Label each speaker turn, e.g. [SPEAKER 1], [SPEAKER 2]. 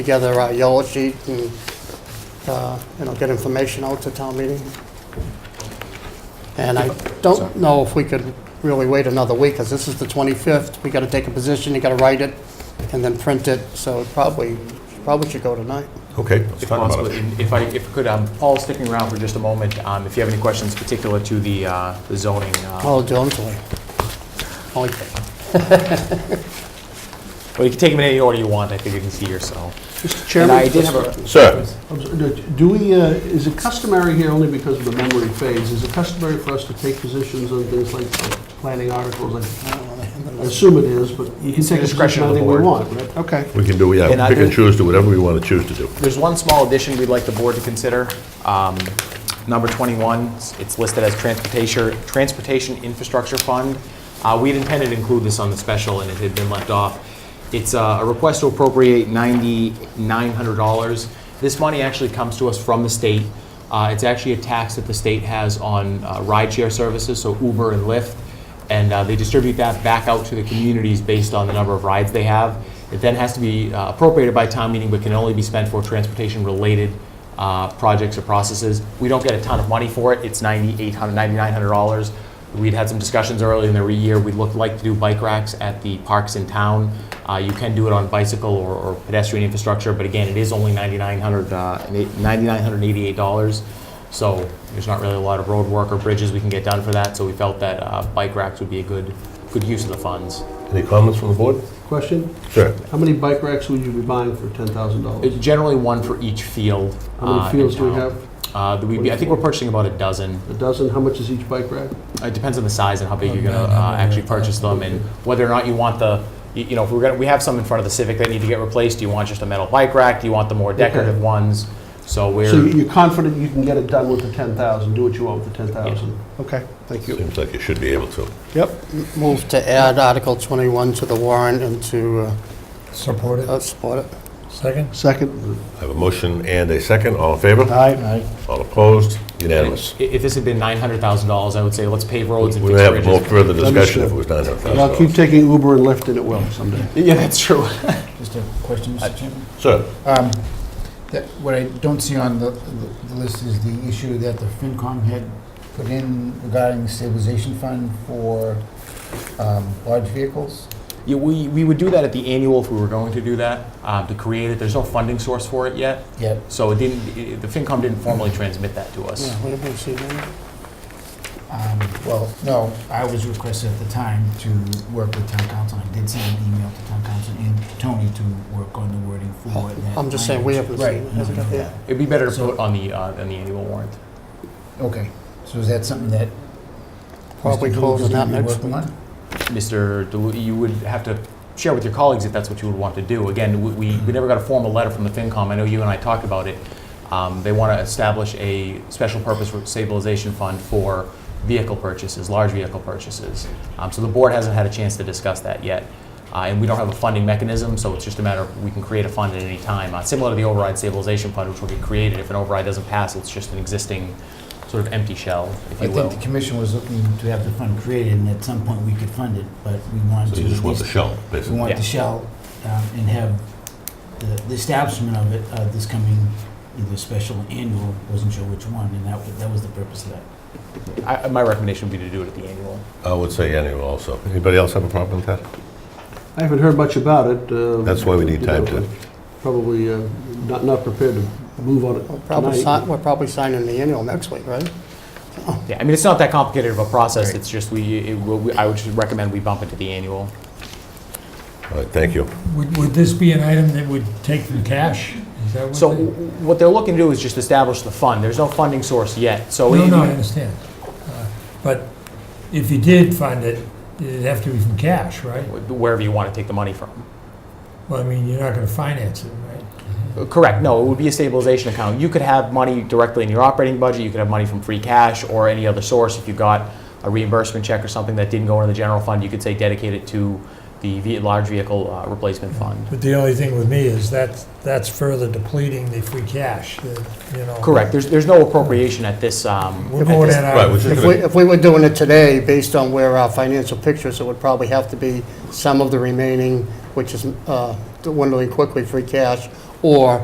[SPEAKER 1] together a yellow sheet and, uh, you know, get information out to town meeting. And I don't know if we could really wait another week, because this is the 25th. We got to take a position, you got to write it, and then print it, so it probably, probably should go tonight.
[SPEAKER 2] Okay, let's
[SPEAKER 3] If
[SPEAKER 2] talk
[SPEAKER 3] possible,
[SPEAKER 2] about it.
[SPEAKER 3] and if I, if I could, um, Paul, sticking around for just a moment, um, if you have any questions particular to the uh, the zoning, uh,
[SPEAKER 1] Oh, don't we? Only-
[SPEAKER 3] but you can take them in any order you want, I think you can see yourself.
[SPEAKER 4] Mr.
[SPEAKER 3] And
[SPEAKER 4] Chairman?
[SPEAKER 3] I did have a,
[SPEAKER 2] Sir,
[SPEAKER 4] I'm sorry, do- Do we, uh, is it customary here, only because of the memory phase, is it customary for us to take positions on things like uh, planning articles? I I assume it is, but we can
[SPEAKER 3] It's the
[SPEAKER 4] take a
[SPEAKER 3] discretion
[SPEAKER 4] position
[SPEAKER 3] of
[SPEAKER 4] on
[SPEAKER 3] the
[SPEAKER 4] anything we
[SPEAKER 3] board.
[SPEAKER 4] want, right? Okay.
[SPEAKER 2] we can do, yeah,
[SPEAKER 3] And I
[SPEAKER 2] pick and
[SPEAKER 3] did-
[SPEAKER 2] choose, do whatever we want to choose to do.
[SPEAKER 3] there's one small addition we'd like the board to consider. Um, Number 21, it's listed as Transportation, Transportation Infrastructure Fund. Uh, We'd intended to include this on the special, and it had been left off. It's uh, a request to appropriate $9,900. This money actually comes to us from the state. Uh, It's actually a tax that the state has on uh, rideshare services, so Uber and Lyft and uh, they distribute that back out to the communities based on the number of rides they have. It then has to be uh, appropriated by town meeting, but can only be spent for transportation-related uh, projects or processes. We don't get a ton of money for it. It's $9,800, $9,900. We'd had some discussions earlier in the year. We'd look, like to do bike racks at the parks in town. Uh, You can do it on bicycle or- or pedestrian infrastructure, but again, it is only $9,900, uh, and eight- $9,988. So there's not really a lot of road work or bridges we can get done for that, so we felt that uh, bike racks would be a good, good use of the funds.
[SPEAKER 2] Any comments from the board?
[SPEAKER 4] Question?
[SPEAKER 2] Sir,
[SPEAKER 4] How many bike racks would you be buying for $10,000?
[SPEAKER 3] It's Uh, Generally, one for each field.
[SPEAKER 4] How
[SPEAKER 3] uh,
[SPEAKER 4] many
[SPEAKER 3] in
[SPEAKER 4] fields do we
[SPEAKER 3] town.
[SPEAKER 4] have?
[SPEAKER 3] Uh, that we'd be- I think we're purchasing about a dozen.
[SPEAKER 4] A dozen? How much is each bike rack?
[SPEAKER 3] It depends on the size and how
[SPEAKER 2] Oh,
[SPEAKER 3] big you're gonna uh, actually purchase them, and whether or not you want the, you you know, if we're gonna, we have some in front of the Civic that need to get replaced. Do you want just a metal bike rack? Do you want the more decorative ones? So
[SPEAKER 4] So
[SPEAKER 3] we're,
[SPEAKER 4] you're confident you can get it done with the 10,000, do what you want with the 10,000? Okay, thank you.
[SPEAKER 2] seems like you should be able to.
[SPEAKER 1] Move to add Article 21 to the warrant and to uh,
[SPEAKER 5] Support it.
[SPEAKER 1] uh, support it.
[SPEAKER 5] Second?
[SPEAKER 4] Second?
[SPEAKER 2] I have a motion and a second, all in favor?
[SPEAKER 5] Aye.
[SPEAKER 2] All opposed? Unanimous.
[SPEAKER 3] i- if this had been $900,000, I would say, let's pave roads and
[SPEAKER 2] We
[SPEAKER 3] fix
[SPEAKER 2] would
[SPEAKER 3] bridges.
[SPEAKER 2] have more further discussion if it was
[SPEAKER 4] And I'll keep
[SPEAKER 2] $900,000.
[SPEAKER 4] taking Uber and Lyft, and it will someday.
[SPEAKER 3] Yeah, that's true.
[SPEAKER 5] Just a question, Mr. Chairman.
[SPEAKER 2] Sir,
[SPEAKER 5] Um, that- What I don't see on the the- the list is the issue that the FinCom had put in regarding stabilization fund for um, large vehicles.
[SPEAKER 3] Yeah, we, we would do that at the annual if we were going to do that, uh, to create it. There's no funding source for it yet,
[SPEAKER 5] Yep.
[SPEAKER 3] so it didn't, i- the FinCom didn't formally transmit that to us.
[SPEAKER 1] Yeah, we haven't seen that.
[SPEAKER 5] Um, Well, no, I was requested at the time to work with town council. I did send an email to town council and Tony to work on the wording for that.
[SPEAKER 1] Oh, I'm just saying, we haven't seen it.
[SPEAKER 5] Right, no,
[SPEAKER 1] Hasn't got
[SPEAKER 5] no.
[SPEAKER 1] there.
[SPEAKER 3] It'd be better to
[SPEAKER 5] So-
[SPEAKER 3] put on the, uh, on the annual warrant.
[SPEAKER 5] Okay, so is that something that?
[SPEAKER 1] Probably
[SPEAKER 5] Mr. Blue
[SPEAKER 1] closing
[SPEAKER 5] is
[SPEAKER 1] that
[SPEAKER 5] gonna be
[SPEAKER 1] next
[SPEAKER 5] working
[SPEAKER 1] week.
[SPEAKER 5] on?
[SPEAKER 3] Mr. Delu, you would have to share with your colleagues if that's what you would want to do. Again, we- we, we never got a formal letter from the FinCom. I know you and I talked about it. Um, They want to establish a special purpose stabilization fund for vehicle purchases, large vehicle purchases. Um, So the board hasn't had a chance to discuss that yet. Uh, And we don't have a funding mechanism, so it's just a matter of, we can create a fund at any time, Uh, similar to the override stabilization fund, which will get created. If an override doesn't pass, it's just an existing sort of empty shell, if
[SPEAKER 5] I
[SPEAKER 3] you will.
[SPEAKER 5] think the commission was looking to have the fund created, and at some point we could fund it, but we wanted
[SPEAKER 2] so
[SPEAKER 5] to.
[SPEAKER 2] you just
[SPEAKER 5] at
[SPEAKER 2] want the
[SPEAKER 5] least-
[SPEAKER 2] shell,
[SPEAKER 5] We
[SPEAKER 2] basically.
[SPEAKER 5] want
[SPEAKER 3] Yeah.
[SPEAKER 5] the shell um, and have the- the establishment of it, uh, this coming either special or annual, wasn't sure which one, and that wa- that was the purpose of that.
[SPEAKER 3] I- My recommendation would be to do it at the annual.
[SPEAKER 2] I would say annual also. Anybody else have a problem with that?
[SPEAKER 4] I haven't heard much about it. uh,
[SPEAKER 2] That's why we need
[SPEAKER 4] you
[SPEAKER 2] time
[SPEAKER 4] know,
[SPEAKER 2] to-
[SPEAKER 4] Probably uh, not, not prepared to move on
[SPEAKER 1] We're
[SPEAKER 4] it
[SPEAKER 1] probably, si-
[SPEAKER 4] tonight.
[SPEAKER 1] we're probably signing the annual next week, right?
[SPEAKER 3] Yeah, I mean, it's not that complicated of a process,
[SPEAKER 5] Right.
[SPEAKER 3] it's just we, it will- we- I would just recommend we bump it to the annual.
[SPEAKER 2] All right, thank you.
[SPEAKER 6] Would, would this be an item that would take from cash? Is that what?
[SPEAKER 3] So
[SPEAKER 6] they-
[SPEAKER 3] what they're looking to do is just establish the fund, there's no funding source yet, so.
[SPEAKER 6] No,
[SPEAKER 3] it-
[SPEAKER 6] no, I understand. Uh, But if you did fund it, it'd have to be from cash, right?
[SPEAKER 3] Wherever you want to take the money from.
[SPEAKER 6] Well, I mean, you're not gonna finance it, right?
[SPEAKER 3] Uh, Correct, no, it would be a stabilization account. You could have money directly in your operating budget, you could have money from free cash or any other source. If you got a reimbursement check or something that didn't go into the general fund, you could say dedicate it to the ve- large vehicle uh, replacement fund.
[SPEAKER 6] But the only thing with me is that, that's further depleting the free cash, uh, you know.
[SPEAKER 3] Correct, there's, there's no appropriation at this, um,
[SPEAKER 6] We're going in
[SPEAKER 2] Right,
[SPEAKER 6] our,
[SPEAKER 2] we're just
[SPEAKER 1] If we,
[SPEAKER 2] gonna-
[SPEAKER 1] if we were doing it today, based on where our financial pictures, it would probably have to be some of the remaining, which is uh, dwindling quickly, free cash, or